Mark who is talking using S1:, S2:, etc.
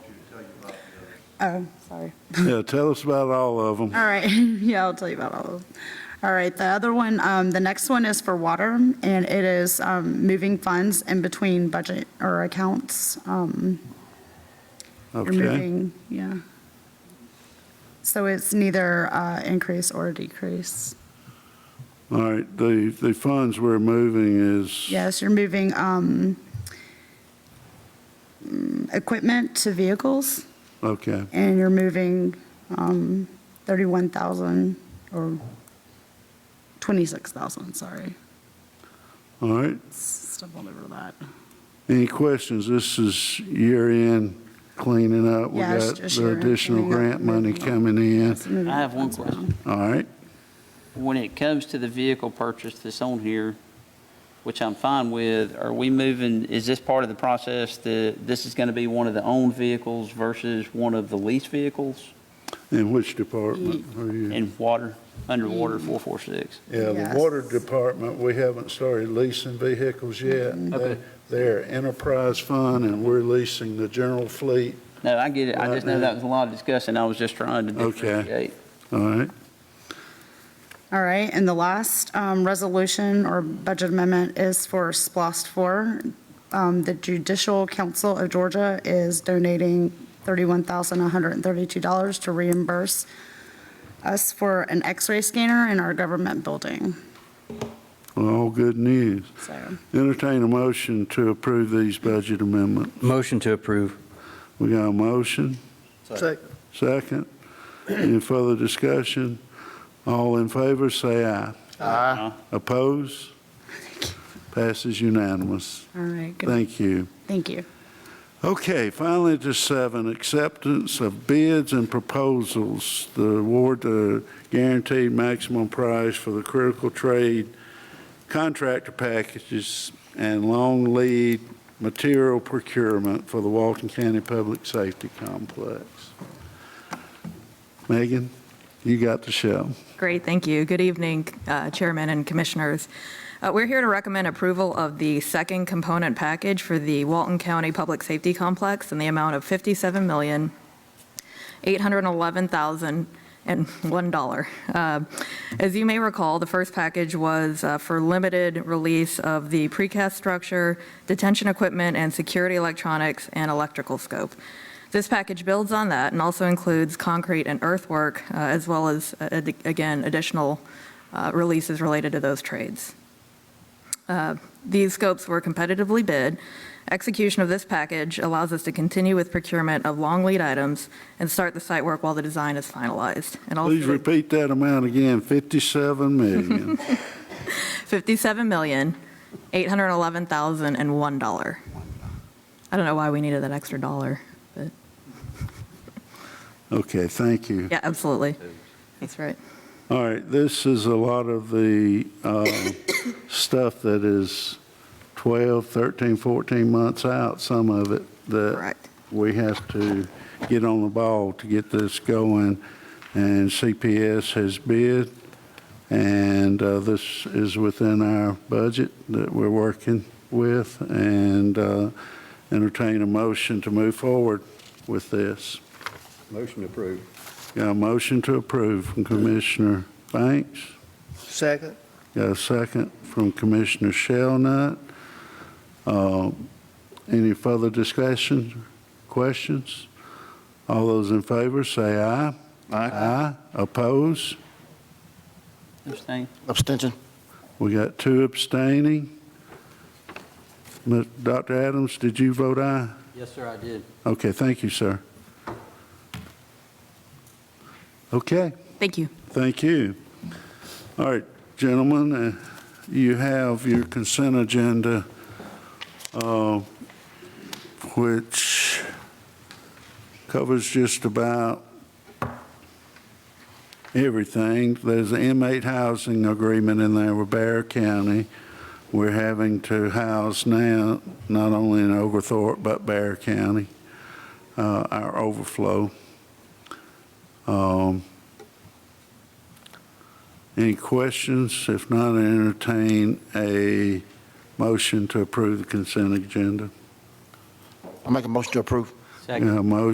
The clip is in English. S1: Oh, sorry.
S2: Yeah, tell us about all of them.
S1: All right, yeah, I'll tell you about all of them. All right, the other one, um, the next one is for water, and it is, um, moving funds in between budget or accounts. Um, you're
S2: Okay.
S1: moving, yeah. So it's neither, uh, increase or decrease.
S2: All right, the, the funds we're moving is.
S1: Yes, you're moving, um, mm, equipment to vehicles,
S2: Okay,
S1: and you're moving, um, thirty-one thousand or twenty-six thousand, sorry.
S2: all right.
S1: stumbled over that.
S2: Any questions? This is year-end cleaning up. We
S1: Yeah, it's
S2: got
S1: just
S2: the
S1: year-end
S2: additional
S1: cleaning up,
S2: grant money
S1: moving
S2: coming in.
S1: It's moving
S3: I have one
S1: funds around.
S3: question.
S2: All right,
S3: When it comes to the vehicle purchase that's on here, which I'm fine with, are we moving, is this part of the process that this is going to be one of the owned vehicles versus one of the leased vehicles?
S2: in which department are you?
S3: In water, underwater 446?
S2: Yeah, the
S1: Yes.
S2: water department, we haven't started leasing vehicles yet.
S1: Mm-hmm.
S2: They-
S3: Okay.
S2: They're enterprise fund and we're leasing the general fleet.
S3: No, I get it. I just know
S2: Right.
S3: that was a lot of discussing. I was just trying to
S2: Okay.
S3: differentiate.
S2: All right,
S1: All right, and the last um, resolution or budget amendment is for SPOSS 4. Um, The Judicial Council of Georgia is donating $31,132 to reimburse us for an x-ray scanner in our government building,
S2: all good news.
S1: so.
S2: Entertain a motion to approve these budget amendments.
S4: Motion to approve.
S2: We got a motion? Second. Any further discussion? All in favor, say aye.
S3: Aye.
S2: Oppose? Passes unanimous.
S1: All right, good.
S2: Thank you.
S1: thank you.
S2: Okay, finally to seven, acceptance of bids and proposals. The award the guaranteed maximum price for the critical trade contractor packages and long lead material procurement for the Walton County Public Safety Complex. Megan, you got the show.
S5: Great, thank you. Good evening, uh, Chairman and Commissioners. Uh, We're here to recommend approval of the second component package for the Walton County Public Safety Complex in the amount of $57,811,001. Uh, As you may recall, the first package was uh, for limited release of the precast structure, detention equipment, and security electronics and electrical scope. This package builds on that and also includes concrete and earthwork, uh, as well as, uh, ad- again, additional uh, releases related to those trades. Uh, These scopes were competitively bid. Execution of this package allows us to continue with procurement of long lead items and start the site work while the design is finalized. And also-
S2: Please repeat that amount again, 57 million.
S5: $57,811,001. I don't know why we needed that extra dollar, but
S2: Okay, thank you.
S5: yeah, absolutely. That's right.
S2: All right, this is a lot of the uh, stuff that is 12, 13, 14 months out, some of it, that
S5: Correct.
S2: we have to get on the ball to get this going. And CPS has bid, and uh, this is within our budget that we're working with, and uh, entertain a motion to move forward with this.
S6: Motion approved.
S2: Got a motion to approve from Commissioner Banks?
S6: Second.
S2: Got a second from Commissioner Shellnut. Uh, Any further discussion, questions? All those in favor, say aye. Aye. Oppose?
S3: Abstain?
S6: Abstention.
S2: We got two abstaining. Mi- Dr. Adams, did you vote aye?
S3: Yes, sir, I did.
S2: Okay, thank you, sir. Okay.
S5: Thank you.
S2: Thank you. All right, gentlemen, uh, you have your consent agenda, uh, which covers just about everything. There's an inmate housing agreement in there with Bear County. We're having to house now, not only in Oglethorpe, but Bear County, uh, our overflow. Um, any questions? If not, I entertain a motion to approve the consent agenda.
S6: I make a motion to approve.
S3: Second.
S2: Yeah, motion